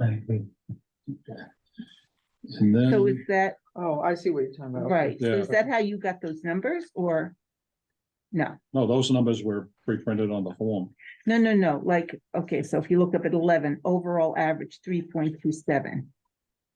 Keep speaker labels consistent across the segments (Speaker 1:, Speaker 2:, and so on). Speaker 1: I agree. And
Speaker 2: So
Speaker 1: then,
Speaker 2: is that,
Speaker 3: Oh, I see what you're talking about.
Speaker 2: right, so is
Speaker 1: Yeah.
Speaker 2: that how you got those numbers or? No,
Speaker 1: no, those numbers were pre-printed on the form.
Speaker 2: no, no, no, like, okay, so if you look up at eleven, overall average three point two seven.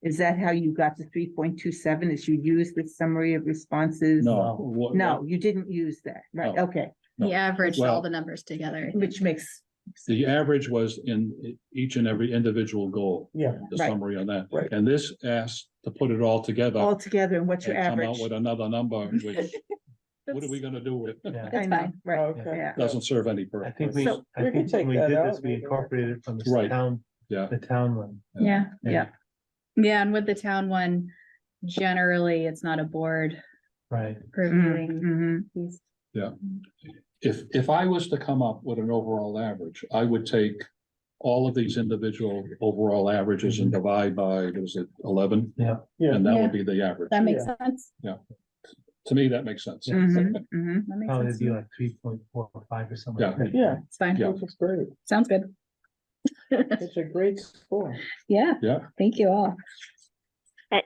Speaker 2: Is that how you got to three point two seven? Is you used the summary of responses?
Speaker 1: No. what-
Speaker 2: No, you didn't use that, right,
Speaker 1: No.
Speaker 2: okay,
Speaker 1: No.
Speaker 4: He averaged all
Speaker 1: Well-
Speaker 4: the numbers together.
Speaker 2: which makes,
Speaker 1: The average was in each and every individual goal,
Speaker 3: Yeah,
Speaker 1: the
Speaker 2: Right.
Speaker 1: summary on that.
Speaker 3: Right.
Speaker 1: And this asks to put it all together
Speaker 2: all together and what's your
Speaker 1: and come out
Speaker 2: average?
Speaker 1: with another number, which, what are we
Speaker 4: That's-
Speaker 1: gonna do with? it?
Speaker 5: Yeah,
Speaker 2: I
Speaker 4: That's
Speaker 2: know,
Speaker 4: fine.
Speaker 2: right,
Speaker 3: Oh, Okay.
Speaker 2: yeah,
Speaker 1: Doesn't serve any
Speaker 5: I
Speaker 1: purpose.
Speaker 5: think we,
Speaker 2: So
Speaker 5: I
Speaker 3: we can
Speaker 5: think when we
Speaker 3: take
Speaker 5: did
Speaker 3: that
Speaker 5: this,
Speaker 3: out,
Speaker 5: we
Speaker 3: maybe.
Speaker 5: incorporated it from the
Speaker 1: Right.
Speaker 5: town,
Speaker 1: Yeah.
Speaker 5: the town one.
Speaker 4: Yeah,
Speaker 2: yeah.
Speaker 4: yeah, and with the town one, generally, it's not a board
Speaker 5: Right,
Speaker 4: reviewing
Speaker 2: Mhm,
Speaker 4: these.
Speaker 1: If, if I was to come up with an overall average, I would take all of these individual overall averages and divide by, what is it, eleven?
Speaker 3: yeah.
Speaker 1: And that
Speaker 4: Yeah.
Speaker 1: would be the average.
Speaker 4: That makes sense.
Speaker 1: To me, that makes sense.
Speaker 4: Mm-hmm.
Speaker 2: mhm, mhm.
Speaker 4: That makes
Speaker 5: probably
Speaker 4: sense. to
Speaker 5: be
Speaker 4: me.
Speaker 5: like three point four or five or something.
Speaker 1: Yeah.
Speaker 5: like that.
Speaker 3: Yeah,
Speaker 4: It's fine.
Speaker 1: Yeah.
Speaker 3: which is great.
Speaker 4: Sounds good.
Speaker 3: It's a great score.
Speaker 4: Yeah,
Speaker 1: Yeah,
Speaker 4: thank you all.
Speaker 6: Uh,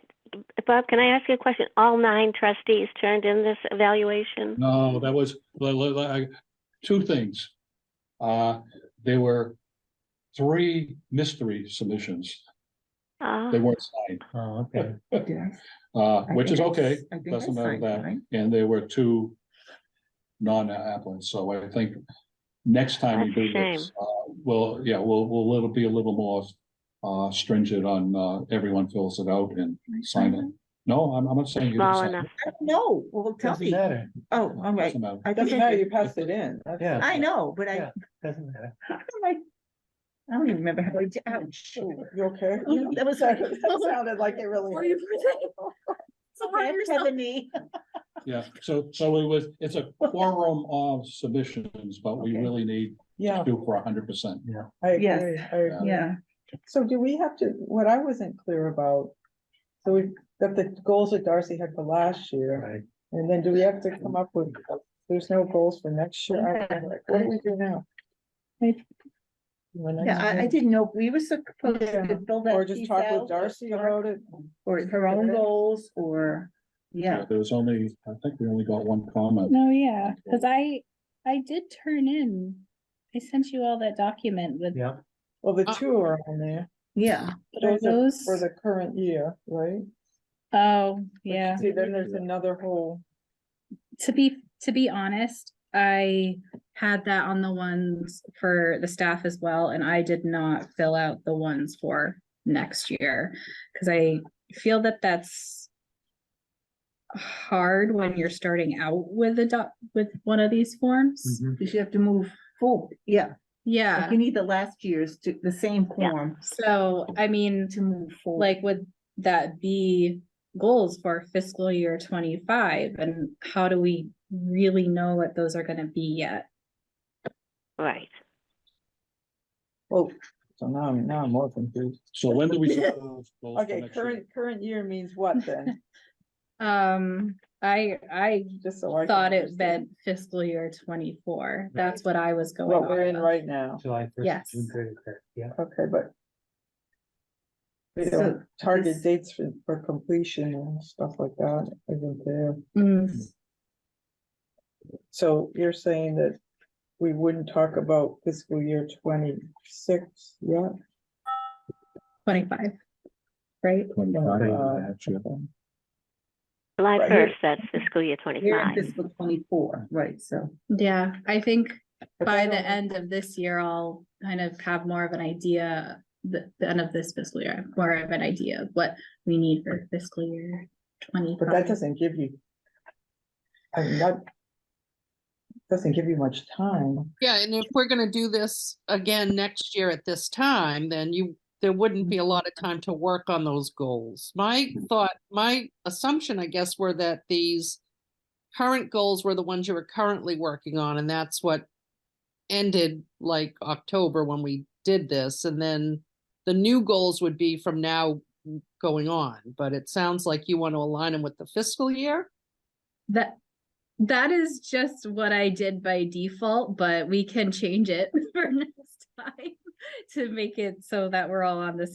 Speaker 6: Bob, can I ask you a question? All nine trustees turned in this evaluation?
Speaker 1: No, that was, li- li- li- I- two things. Uh, there were three mystery submissions.
Speaker 6: Ah,
Speaker 1: They weren't signed,
Speaker 5: Oh, okay.
Speaker 2: Yes,
Speaker 1: uh,
Speaker 2: I
Speaker 1: which
Speaker 2: think
Speaker 1: is
Speaker 2: mm-hmm, I-
Speaker 1: okay,
Speaker 2: I think I
Speaker 1: doesn't matter
Speaker 2: signed
Speaker 1: that,
Speaker 2: mine.
Speaker 1: and there were two non-applicants, so I think next time we
Speaker 6: That's a
Speaker 1: do this, uh, well, yeah, we'll, we'll, little be a little more uh, stringent on, uh, everyone fills it out and sign it. No, I'm, I'm not saying. you didn't
Speaker 6: Small
Speaker 1: sign it.
Speaker 6: enough.
Speaker 2: I don't know, well, tell
Speaker 5: Doesn't
Speaker 2: me,
Speaker 5: matter,
Speaker 2: oh, all right.
Speaker 1: Doesn't matter.
Speaker 2: I think
Speaker 3: Doesn't
Speaker 2: I
Speaker 3: matter,
Speaker 2: did.
Speaker 3: you passed it in. That's-
Speaker 5: yeah.
Speaker 2: I know, but I,
Speaker 5: Yeah. Doesn't matter.
Speaker 2: I don't even remember how I did, ouch.
Speaker 3: Oh, You okay?
Speaker 2: No, that was
Speaker 3: Sorry,
Speaker 2: like-
Speaker 3: That sounded like Oh, it really.
Speaker 2: Okay, Ebony.
Speaker 1: Yeah, so, so it was, it's a quorum of submissions, but we
Speaker 2: Okay.
Speaker 1: really need
Speaker 3: Yeah,
Speaker 1: do for a hundred percent.
Speaker 3: I
Speaker 2: Yes.
Speaker 3: agree. I agree.
Speaker 2: Yeah,
Speaker 3: So do we have to, what I wasn't clear about, so we, that the goals that Darcy had for last year,
Speaker 5: Right,
Speaker 3: and then do we have to come up with, there's no goals for next year? I don't know, like, What do we do now?
Speaker 4: I-
Speaker 3: When I-
Speaker 2: yeah, I, I didn't know, we were supposed
Speaker 3: Yeah.
Speaker 2: to build that.
Speaker 3: Or just
Speaker 2: piece
Speaker 3: talk
Speaker 2: out,
Speaker 3: with Darcy about it?
Speaker 2: Or her own goals, or, yeah,
Speaker 1: There was only, I think we only got one comment.
Speaker 4: No, yeah, because I, I did turn in, I sent you all that document with,
Speaker 5: yeah,
Speaker 3: Well, the
Speaker 4: Uh,
Speaker 3: two are on there.
Speaker 2: yeah,
Speaker 4: but are
Speaker 3: Those are
Speaker 4: those,
Speaker 3: For the current year, right?
Speaker 4: oh, yeah.
Speaker 3: See, then there's another whole,
Speaker 4: to be to be honest, I had that on the ones for the staff as well, and I did not fill out the ones for next year because I feel that that's hard when you're starting out with a doc with one of these forms.
Speaker 1: Mm-hmm.
Speaker 5: mhm.
Speaker 2: because you have to move forward, yeah.
Speaker 4: Yeah.
Speaker 2: Like you need the last year's to, the same form
Speaker 4: So I mean,
Speaker 2: to move forward.
Speaker 4: like would that be goals for fiscal year twenty-five? And how do we really know what those are gonna be yet?
Speaker 6: Right.
Speaker 3: well, Oh, so now I'm, now I'm more confused.
Speaker 1: So when do we? propose goals for
Speaker 3: Okay,
Speaker 1: next year?
Speaker 3: current, current year means what then?
Speaker 4: Um, I I
Speaker 3: Just so I. can
Speaker 4: thought it
Speaker 3: understand
Speaker 4: meant fiscal year twenty-four. That's what I was going
Speaker 3: What we're in
Speaker 4: on.
Speaker 3: right now.
Speaker 5: July
Speaker 4: Yes.
Speaker 5: first, June thirtieth, yeah.
Speaker 3: Okay, but. We
Speaker 2: So
Speaker 3: don't target
Speaker 2: this-
Speaker 3: dates for, for completion and stuff like that isn't there.
Speaker 4: Mm,
Speaker 3: So you're saying that we wouldn't talk about fiscal year twenty-six yet?
Speaker 4: Twenty-five, right?
Speaker 1: Twenty-five, next year.
Speaker 3: Okay.
Speaker 6: July
Speaker 3: Right.
Speaker 6: first, that's fiscal year
Speaker 2: We're in
Speaker 6: twenty-five.
Speaker 2: fiscal twenty-four, right, so.
Speaker 4: Yeah, I think
Speaker 3: But
Speaker 4: by
Speaker 3: then
Speaker 4: the
Speaker 3: I'll-
Speaker 4: end of this year, I'll kind of have more of an idea. The, the end of this fiscal year, I have more of an idea of what we need for fiscal year
Speaker 3: But that
Speaker 4: twenty-five.
Speaker 3: doesn't give you. I mean, that. Doesn't give you much time.
Speaker 7: Yeah, and if we're gonna do this again next year at this time, then you, there wouldn't be a lot of time to work on those goals. My thought, my assumption, I guess, were that these current goals were the ones you were currently working on, and that's what ended like October when we did this, and then the new goals would be from now going on, but it sounds like you want to align them with the fiscal year?
Speaker 4: That, that is just what I did by default, but we can change it for next time to make it so that we're all on the same